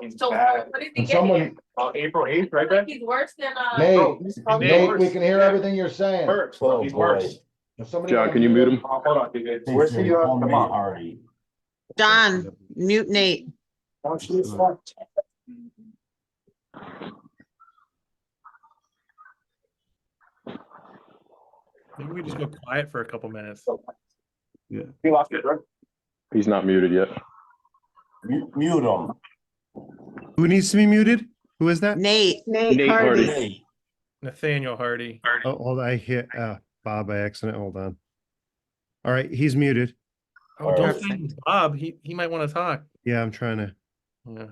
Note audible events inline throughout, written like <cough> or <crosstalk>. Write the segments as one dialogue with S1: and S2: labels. S1: he's
S2: So
S1: bad.
S2: what did he get here?
S3: Someone,
S1: Uh, April eighth, right, Ben?
S2: Like he's worse than, uh.
S3: Nate,
S1: Oh, he's probably
S3: Nate,
S1: worse.
S3: we can hear everything you're saying.
S1: Worse,
S4: Oh,
S1: he's
S4: boy.
S1: worse.
S3: If somebody
S5: John,
S3: comes
S5: can you
S3: in-
S5: mute him?
S1: Uh, Hold on, dude, it's-
S4: They
S1: where's
S4: said
S1: the, uh,
S4: call
S1: the
S4: me
S1: mom?
S4: Ari.
S6: John, mute Nate.
S1: Oh, she's fine.
S7: Maybe we just go quiet for a couple minutes.
S1: You lost it, right?
S5: He's not muted yet.
S4: Mu- Mute him.
S8: Who needs to be muted? Who is that?
S6: Nate,
S5: Nate Hardy.
S4: Hey,
S7: Nathaniel Hardy.
S8: Oh, hold on, I hit, uh, Bob by accident, hold on. All right, he's muted.
S7: Oh, don't thank Bob. He, he might want to talk.
S8: Yeah, I'm trying to,
S7: Yeah.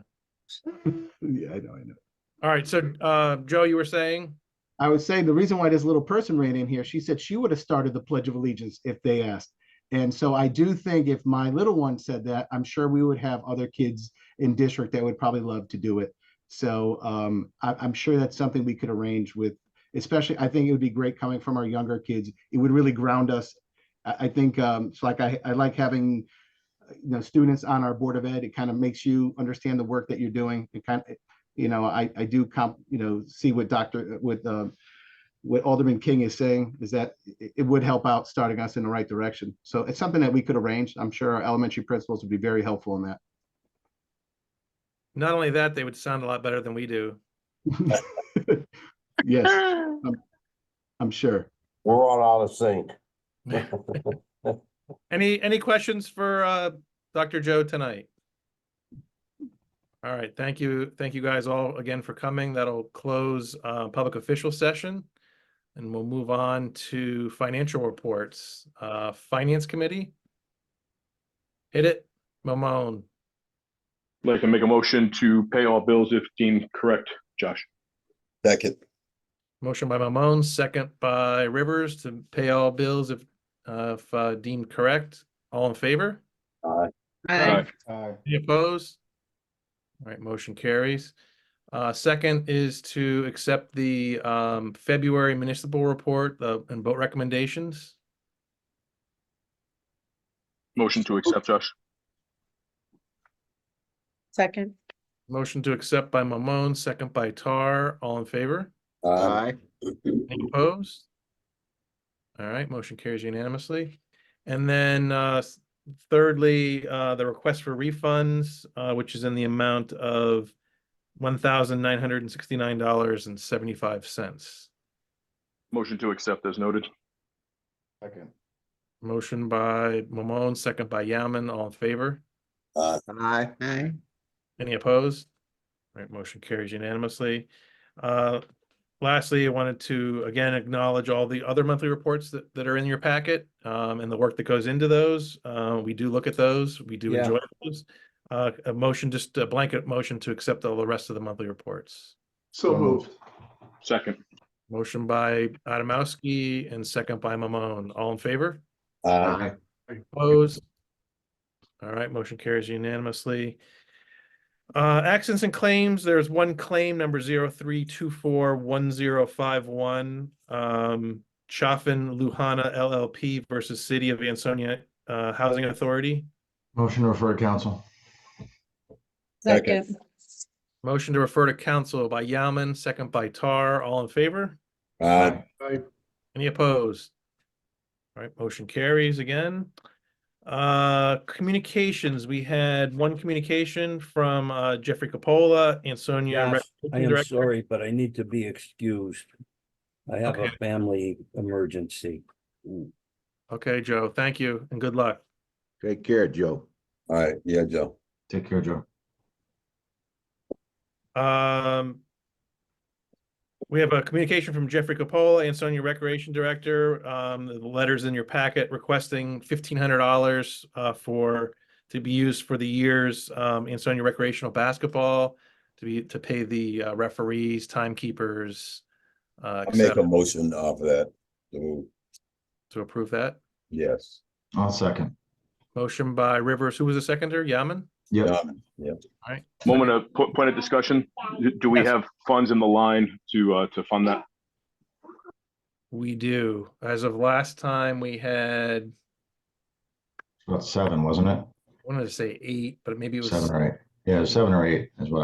S9: Yeah, I know, I know.
S7: All right. So, uh, Joe, you were saying?
S9: I was saying the reason why this little person ran in here, she said she would have started the Pledge of Allegiance if they asked. And so I do think if my little one said that, I'm sure we would have other kids in district that would probably love to do it. So um, I, I'm sure that's something we could arrange with, especially, I think it would be great coming from our younger kids. It would really ground us. I, I think um, it's like I, I like having, uh, you know, students on our Board of Ed. It kind of makes you understand the work that you're doing. It kind of, you know, I, I do comp, you know, see what Dr., what, um, what Alderman King is saying is that it, it would help out starting us in the right direction. So it's something that we could arrange. I'm sure our elementary principals would be very helpful in that. <laughs>
S7: Not only that, they would sound a lot better than we do.
S9: Yes,
S6: Ah,
S9: I'm sure.
S4: We're all out of
S3: <laughs>
S4: sync.
S7: Any, any questions for, uh, Dr. Joe tonight? All right. Thank you. Thank you guys all again for coming. That'll close, uh, public official session. And we'll move on to financial reports. Uh, Finance Committee? Hit it, Mamone.
S5: I'd Like to make a motion to pay all bills if deemed correct, Josh.
S10: Second,
S7: Motion by Mamon, second by Rivers to pay all bills if, uh, if uh, deemed correct. All in favor?
S6: aye.
S3: Uh,
S7: Any opposed? All right, motion carries. Uh, second is to accept the, um, February municipal report, the, and vote recommendations.
S5: Motion to accept, Josh.
S6: Second,
S7: Motion to accept by Mamon, second by Tar. All in favor?
S4: Um,
S7: Any opposed? All right, motion carries unanimously. And then uh s- thirdly, uh the request for refunds, uh which is in the amount of one thousand nine hundred and sixty-nine dollars and seventy-five cents.
S5: Motion to accept as noted.
S3: second.
S7: Motion by Mamon, second by Yaman, all in favor?
S10: aye,
S6: aye.
S7: Any opposed? All Right, motion carries unanimously. Uh, Lastly, I wanted to again acknowledge all the other monthly reports that, that are in your packet um, and the work that goes into those. Uh, We do look at those. We do
S10: Yeah.
S7: enjoy those. Uh, A motion, just a blanket motion to accept all the rest of the monthly reports.
S3: So moved.
S5: Um, Second.
S7: Motion by Adamowski and second by Mamone. All in favor?
S4: uh,
S7: Opposed? All right, motion carries unanimously. Uh, accidents and claims, there's one claim number zero three two four one zero five one. Um, Chaffin Luhana LLP versus City of Ansonia, uh, Housing Authority.
S3: Motion to refer to council.
S10: Second.
S6: Second,
S7: Motion to refer to council by Yaman, second by Tar, all in favor?
S10: aye,
S7: Any opposed? All right, motion carries again. Uh, communications, we had one communication from uh Jeffrey Capola,
S11: Yes, I
S7: Ansonia. Recreation
S11: am
S7: Director.
S11: sorry, but I need to be excused. I have a
S7: Okay.
S11: family emergency.
S7: Okay, Joe, thank you and good luck.
S4: Take care, Joe.
S10: aye, yeah, Joe.
S3: Take care, Joe.
S7: Um. We have a communication from Jeffrey Capola, Ansonia Recreation Director, um, the letters in your packet requesting fifteen hundred dollars uh for. To be used for the year's um Ansonia recreational basketball, to be, to pay the uh, referees, timekeepers. Uh,
S10: I make
S7: et
S10: a
S7: cetera.
S10: motion off of that. So,
S7: to approve that.
S10: Yes.
S3: I'll second.
S7: Motion by Rivers, who was the seconder? Yaman?
S3: Yeah.
S10: Done. Yeah.
S5: Moment of po- point of discussion. Do- Do we
S7: Yes.
S5: have funds in the line to, uh, to fund that?
S7: We do. As of last time, we had,
S3: About seven, wasn't
S7: I wanted to say eight, but maybe it
S3: it?
S7: was.
S3: Seven or eight. Yeah, seven or eight is what